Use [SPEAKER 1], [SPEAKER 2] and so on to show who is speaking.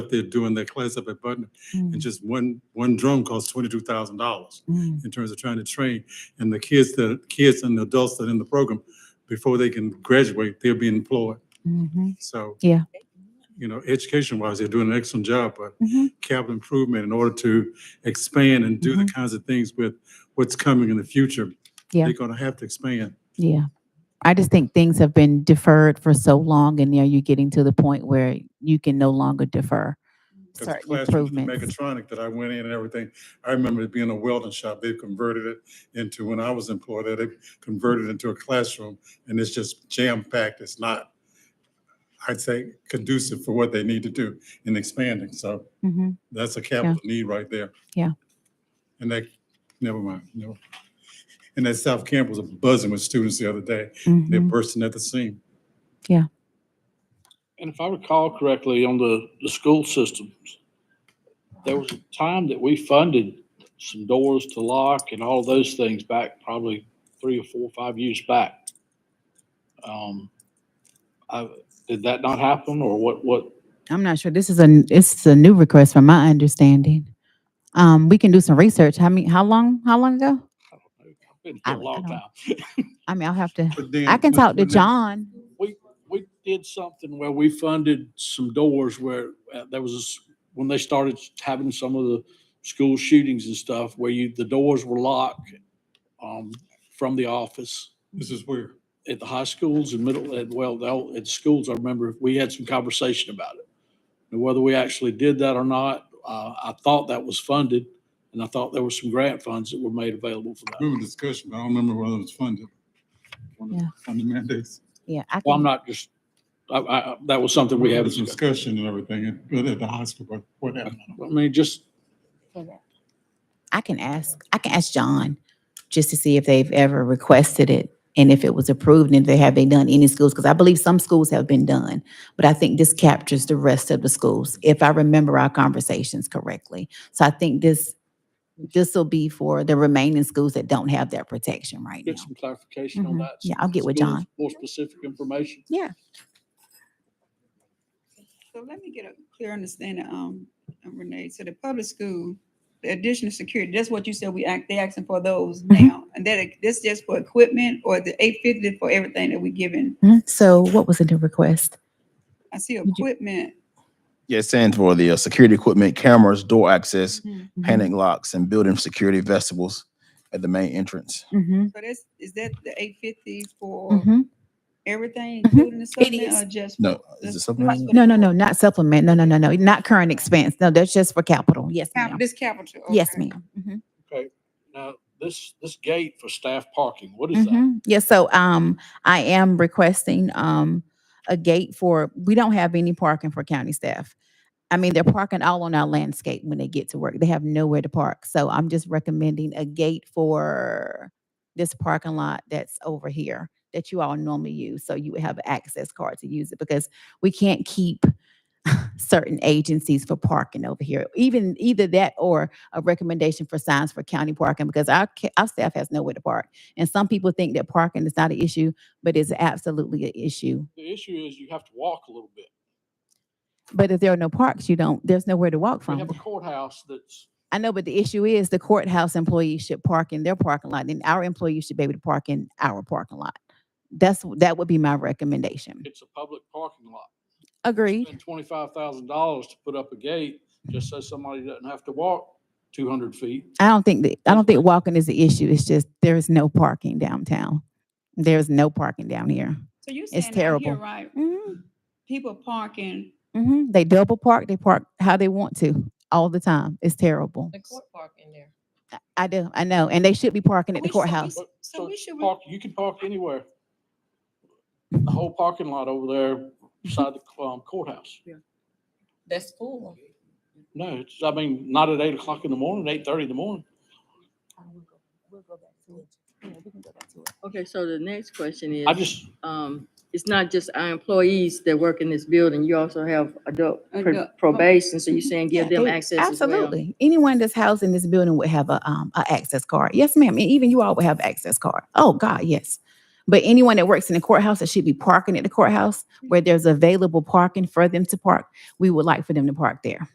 [SPEAKER 1] up there doing their class up at Button,
[SPEAKER 2] Mm,
[SPEAKER 1] and just one, one drum costs twenty-two thousand dollars
[SPEAKER 2] mm,
[SPEAKER 1] in terms of trying to train. And the kids, the kids and the adults that are in the program, before they can graduate, they'll be employed.
[SPEAKER 2] mhm,
[SPEAKER 1] So.
[SPEAKER 2] Yeah.
[SPEAKER 1] You know, education-wise, they're doing an excellent job, but
[SPEAKER 2] mhm.
[SPEAKER 1] capital improvement in order to expand and do the kinds of things with what's coming in the future.
[SPEAKER 2] Mm-hmm. Yeah.
[SPEAKER 1] They're gonna have to expand.
[SPEAKER 2] Yeah. I just think things have been deferred for so long and now you're getting to the point where you can no longer defer
[SPEAKER 1] 'Cause the
[SPEAKER 2] certain
[SPEAKER 1] classroom with
[SPEAKER 2] improvements.
[SPEAKER 1] Mechatronic that I went in and everything, I remember it being a welding shop. They've converted it into, when I was employed there, they converted it into a classroom and it's just jam-packed. It's not, I'd say conducive for what they need to do in expanding. So
[SPEAKER 2] Mhm.
[SPEAKER 1] that's a capital need right there.
[SPEAKER 2] Yeah.
[SPEAKER 1] And that, never mind, no. And that South Camp was buzzing with students the other day. They're
[SPEAKER 2] Mhm.
[SPEAKER 1] bursting at the seam.
[SPEAKER 3] And if I recall correctly, on the, the school systems, there was a time that we funded some doors to lock and all of those things back probably three or four, five years back. Um, I, did that not happen or what, what?
[SPEAKER 2] I'm not sure. This is a, n- this is a new request from my understanding. Um, we can do some research. How many, how long, how long ago?
[SPEAKER 3] I don't know. I've been
[SPEAKER 2] I-
[SPEAKER 3] here a long
[SPEAKER 2] I don't-
[SPEAKER 3] time.
[SPEAKER 2] I mean, I'll have to,
[SPEAKER 1] But then-
[SPEAKER 2] I can
[SPEAKER 1] but-
[SPEAKER 2] talk to
[SPEAKER 1] but then-
[SPEAKER 2] John.
[SPEAKER 3] We did something where we funded some doors where uh, there was, this- when they started having some of the school shootings and stuff, where you, the doors were locked, um, from the office.
[SPEAKER 1] This is where,
[SPEAKER 3] at the high schools and middle, and well, the old- at schools, I remember we had some conversation about it. And whether we actually did that or not, uh, I thought that was funded and I thought there were some grant funds that were made available for
[SPEAKER 1] I
[SPEAKER 3] that.
[SPEAKER 1] remember discussion, but I don't remember whether it was funded. One of the
[SPEAKER 2] Yeah.
[SPEAKER 1] Funded mandates.
[SPEAKER 2] Yeah. I
[SPEAKER 3] Well, I'm
[SPEAKER 2] can-
[SPEAKER 3] not just, I, I, I- that was something we
[SPEAKER 1] There
[SPEAKER 3] had.
[SPEAKER 1] was Discussion and everything, and- but at the high school, but whatever.
[SPEAKER 3] I mean, just,
[SPEAKER 2] I can ask, I can ask John just to see if they've ever requested it and if it was approved and if they have they done any schools, because I believe some schools have been done. But I think this captures the rest of the schools, if I remember our conversations correctly. So I think this, this will be for the remaining schools that don't have that protection right now.
[SPEAKER 3] get some clarification on
[SPEAKER 2] Mhm.
[SPEAKER 3] that.
[SPEAKER 2] Yeah, I'll get with
[SPEAKER 3] Schools,
[SPEAKER 2] John.
[SPEAKER 3] More specific information.
[SPEAKER 4] So let me get a clear understanding, um, Renee, so the public school, the additional security, that's what you said we act, they asking for those
[SPEAKER 2] Mhm.
[SPEAKER 4] now. And that, this just for equipment or the eight fifty for everything that we giving?
[SPEAKER 2] Mhm. So what was in the request?
[SPEAKER 4] I see
[SPEAKER 2] you-
[SPEAKER 4] equipment.
[SPEAKER 5] Yeah, it stands for the uh, security equipment, cameras, door access,
[SPEAKER 2] Mm-hmm.
[SPEAKER 5] panic locks, and building security vestibles at the main entrance.
[SPEAKER 2] Mm-hmm.
[SPEAKER 4] So that's, is that the eight fifty for
[SPEAKER 2] Mm-hmm.
[SPEAKER 4] everything,
[SPEAKER 2] Mhm.
[SPEAKER 4] including the supplement
[SPEAKER 2] is.
[SPEAKER 4] or just?
[SPEAKER 5] No,
[SPEAKER 4] for
[SPEAKER 5] is
[SPEAKER 4] the-
[SPEAKER 5] it something?
[SPEAKER 2] No, no, no, not supplement. No, no, no, no, not current expense. No, that's just for capital. Yes,
[SPEAKER 4] Cap-
[SPEAKER 2] ma'am.
[SPEAKER 4] This capital.
[SPEAKER 2] Yes,
[SPEAKER 4] okay.
[SPEAKER 2] ma'am. Mhm.
[SPEAKER 3] Okay. Now, this, this gate for staff parking, what is that?
[SPEAKER 2] Mm-hmm. Yeah, so um, I am requesting um a gate for, we don't have any parking for county staff. I mean, they're parking all on our landscape when they get to work. They have nowhere to park. So I'm just recommending a gate for this parking lot that's over here that you all normally use. So you would have an access card to use it because we can't keep certain agencies for parking over here. Even either that or a recommendation for signs for county parking because our ca- our staff has nowhere to park. And some people think that parking is not an issue, but it's absolutely an issue.
[SPEAKER 3] The issue is you have to walk a little bit.
[SPEAKER 2] But if there are no parks, you don't, there's nowhere to walk
[SPEAKER 3] We
[SPEAKER 2] from.
[SPEAKER 3] have a courthouse that's
[SPEAKER 2] I know, but the issue is the courthouse employees should park in their parking lot and our employees should be able to park in our parking lot. That's, that would be my recommendation.
[SPEAKER 3] it's a public parking lot.
[SPEAKER 2] Agreed.
[SPEAKER 3] Spend twenty-five thousand dollars to put up a gate just so somebody doesn't have to walk two hundred feet.
[SPEAKER 2] I don't think that, I don't think walking is the issue. It's just there is no parking downtown. There's no parking down here.
[SPEAKER 4] So you
[SPEAKER 2] It's
[SPEAKER 4] saying down here,
[SPEAKER 2] terrible.
[SPEAKER 4] right,
[SPEAKER 2] Mhm,
[SPEAKER 4] people parking,
[SPEAKER 2] mhm. They double park, they park how they want to all the time. It's terrible.
[SPEAKER 6] The court park in there.
[SPEAKER 2] I- I do, I know. And they should be parking at the
[SPEAKER 4] We should be
[SPEAKER 2] courthouse.
[SPEAKER 4] So we should re-
[SPEAKER 3] Park, you can park anywhere. The whole parking lot over there beside the um, courthouse.
[SPEAKER 6] That's cool.
[SPEAKER 3] No, it's, I mean, not at eight o'clock in the morning, eight thirty in the morning.
[SPEAKER 7] Okay, so the next question
[SPEAKER 3] I
[SPEAKER 7] is,
[SPEAKER 3] just,
[SPEAKER 7] um, it's not just our employees that work in this building, you also have adult pr-
[SPEAKER 4] Adult.
[SPEAKER 7] probation, so you're saying give
[SPEAKER 2] Yeah,
[SPEAKER 7] them
[SPEAKER 2] they-
[SPEAKER 7] access as well?
[SPEAKER 2] Absolutely. Anyone that's housed in this building would have a um a access card. Yes, ma'am. And even you all would have access card. Oh God, yes. But anyone that works in the courthouse that should be parking at the courthouse, where there's available parking for them to park, we would like for them to park there.